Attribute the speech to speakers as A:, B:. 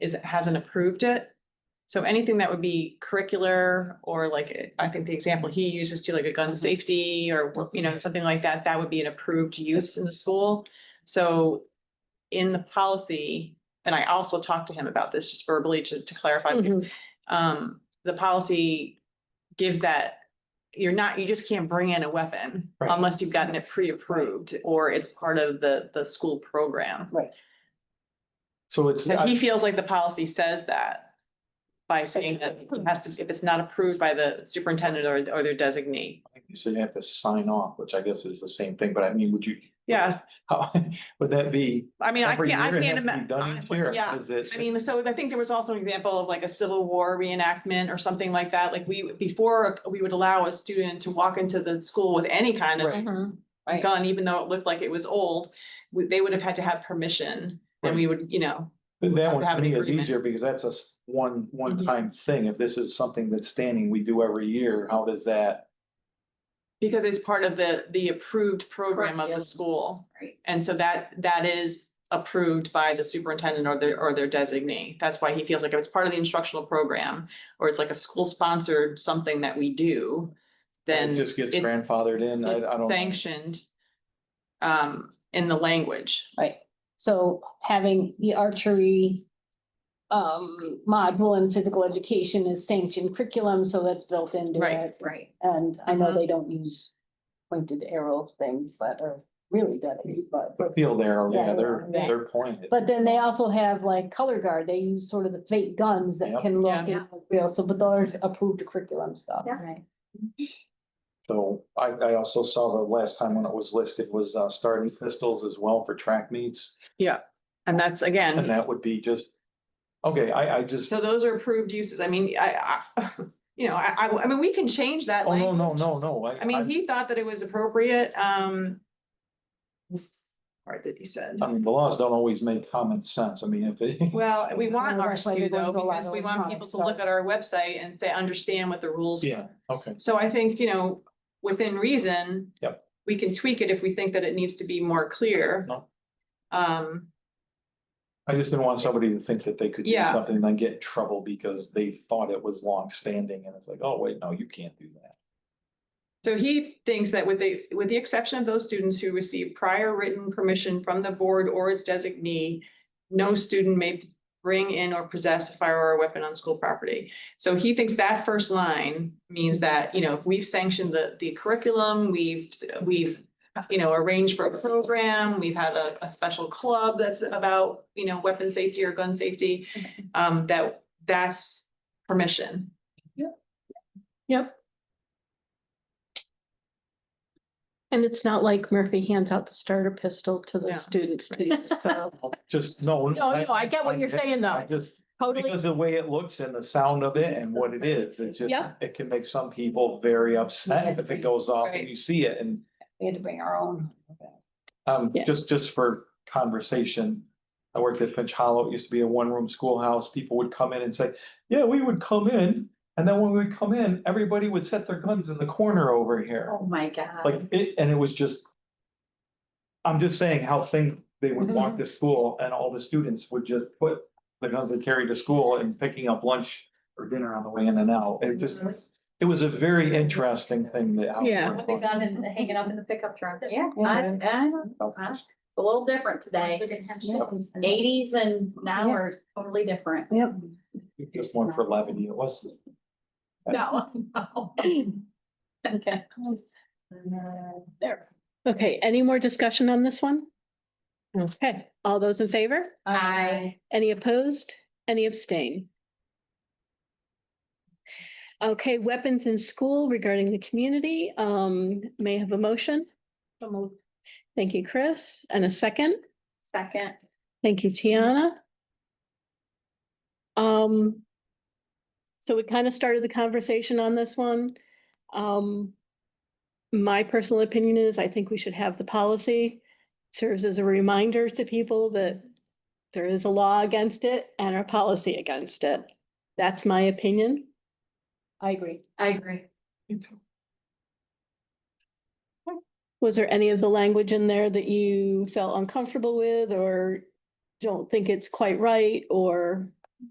A: is, hasn't approved it. So anything that would be curricular or like, I think the example he uses to like a gun safety or, you know, something like that, that would be an approved use in the school. So in the policy, and I also talked to him about this just verbally to, to clarify, because
B: Mm-hmm.
C: Mhm.
A: um, the policy gives that. You're not, you just can't bring in a weapon
D: Right.
A: unless you've gotten it pre-approved or it's part of the, the school program.
D: So it's,
A: So he
D: I-
A: feels like the policy says that by saying that it has to, if it's not approved by the superintendent or, or their designee.
D: you said you have to sign off, which I guess is the same thing, but I mean, would you,
A: Yeah,
D: how, would that be?
A: I mean, I
D: every
A: can't, I
D: year it
A: can't
D: has to be done each
A: imagine.
D: year?
A: Yeah,
D: Is it-
A: I mean, so I think there was also an example of like a Civil War reenactment or something like that. Like we, before, we would allow a student to walk into the school with any kind of
C: Mm-hmm,
D: Right.
C: Right.
A: gun, even though it looked like it was old, we- they would have had to have permission. And we would, you know,
D: Th- That one
A: have
D: to
A: an
D: me is
A: agreement. Mm-hmm.
D: easier because that's a s- one, one-time thing. If this is something that's standing, we do every year, how does that?
A: because it's part of the, the approved program of the
C: Curriculum.
A: school.
C: Right.
A: And so that, that is approved by the superintendent or their, or their designee. That's why he feels like if it's part of the instructional program, or it's like a school-sponsored something that we do,
D: It
A: then
D: just gets
A: it's-
D: grandfathered in, I, I don't.
A: sanctioned um, in the language.
C: So having the archery um, module in physical education is sanctioned curriculum, so that's built into
A: Right.
C: it.
E: Right.
C: And I know
B: Mm-hmm.
A: Mhm.
C: they don't use pointed arrow things that are really deadly, but,
D: Feel there, yeah,
C: Yeah,
D: they're,
C: yeah.
D: they're pointed.
C: but then they also have like color guard. They use sort of the fake guns that
D: Yep.
C: can look
A: Yeah.
C: and look real. So, but those are approved curriculum stuff.
E: Yeah.
C: Right.
D: So I, I also saw the last time when it was listed was, uh, starting pistols as well for track meets.
A: And that's, again,
D: And that would be just, okay, I, I just,
A: So those are approved uses. I mean, I, I, you know, I, I, I mean, we can change that.
D: oh, no, no,
A: language.
D: no, no, I.
A: I mean, he thought that it was appropriate, um. this Part that he said.
D: I mean, the laws don't always make common sense. I mean, if it.
A: Well, we want
C: Well, that's
A: ours
C: why
A: to
C: they're
A: though,
C: going to a lot
A: because
C: of
A: we want
C: electronic
A: people to look
C: stuff.
A: at our website and say, understand what the rules.
D: Yeah, okay.
A: So I think, you know, within reason.
D: Yep.
A: We can tweak it if we think that it needs to be more clear.
D: No.
A: Um,
D: I just didn't want somebody to think that they could do
A: Yeah.
D: something and then get in trouble because they thought it was longstanding and it's like, oh, wait, no, you can't do that.
A: So he thinks that with the, with the exception of those students who receive prior written permission from the board or its designee, no student may bring in or possess a firearm or weapon on school property. So he thinks that first line means that, you know, if we've sanctioned the, the curriculum, we've, we've, you know, arranged for a program, we've had a, a special club that's about, you know, weapon safety or gun safety, um, that, that's permission.
B: And it's not like Murphy hands out the starter pistol to
A: Yeah.
B: the students to use. so-
D: Just, no.
B: No, no, I get what you're saying
D: I
B: though.
D: just,
B: Totally.
D: because of the way it looks and the sound of it and what it is, it's just,
B: Yeah.
D: it can make some people very upset if it goes off
A: Right.
D: and you see it and
C: We had to bring our own.
D: Um,
B: Yeah.
D: just, just for conversation. I worked at Finch Hollow. It used to be a one-room schoolhouse. People would come in and say, yeah, we would come in. And then when we would come in, everybody would set their guns in the corner over here.
E: Oh, my God.
D: Like it, and it was just. I'm just saying how thing, they would walk to school and all the students would just put the guns they carried to school and picking up lunch or dinner on the way in and out. It just, it was a very interesting thing that. how it
B: Yeah.
D: went
E: They
D: on.
E: found it hanging up in the pickup truck. Yeah.
C: Yeah.
E: I, I don't know. Huh? It's a little different today. Eighties and now
C: Yeah.
E: are totally different.
C: Yep.
D: Just one for levity. It wasn't.
E: No. no.
C: Okay. There.
B: Okay, any more discussion on this one? Okay, all those in favor?
E: I,
B: Any opposed? Any abstain? Okay, weapons in school regarding the community, um, may I have a motion. Thank you, Chris, and a second.
E: second,
B: Thank you, Tiana. Um, so we kind of started the conversation on this one. Um, my personal opinion is I think we should have the policy. Serves as a reminder to people that there is a law against it and a policy against it. That's my opinion.
C: I agree.
E: I agree.
B: Was there any of the language in there that you felt uncomfortable with or don't think it's quite right or